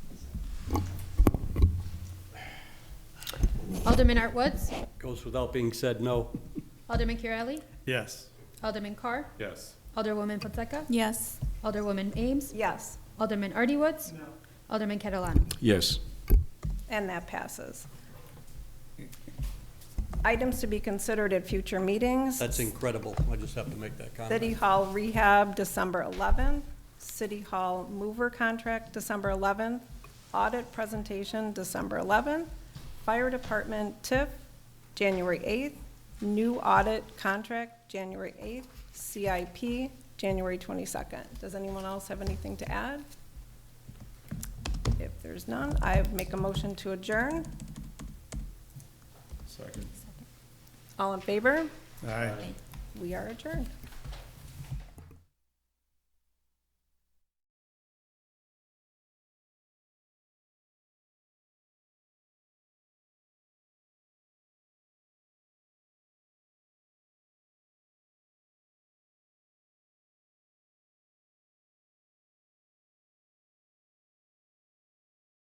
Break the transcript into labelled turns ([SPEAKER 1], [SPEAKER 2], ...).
[SPEAKER 1] Alderman Art Woods,
[SPEAKER 2] Goes without being said, no.
[SPEAKER 1] Alderman Curley,
[SPEAKER 3] Yes.
[SPEAKER 1] Alderman Carr,
[SPEAKER 3] Yes.
[SPEAKER 1] Alderwoman Fonseca,
[SPEAKER 4] Yes.
[SPEAKER 1] Alderwoman Ames,
[SPEAKER 5] Yes,
[SPEAKER 1] Alderman Artie Woods, Alderman Catalano.
[SPEAKER 6] Yes.
[SPEAKER 5] and that passes. Items to be considered at future meetings.
[SPEAKER 2] That's incredible. I just have to make that
[SPEAKER 5] City
[SPEAKER 2] comment.
[SPEAKER 5] Hall rehab, December 11th. City Hall mover contract, December 11th. Audit presentation, December 11th. Fire Department TIF, January 8th. New audit contract, January 8th. CIP, January 22nd. Does anyone else have anything to add? If there's none, I make a motion to adjourn.
[SPEAKER 3] Second.
[SPEAKER 5] All in favor?
[SPEAKER 3] Aye.
[SPEAKER 5] We are adjourned.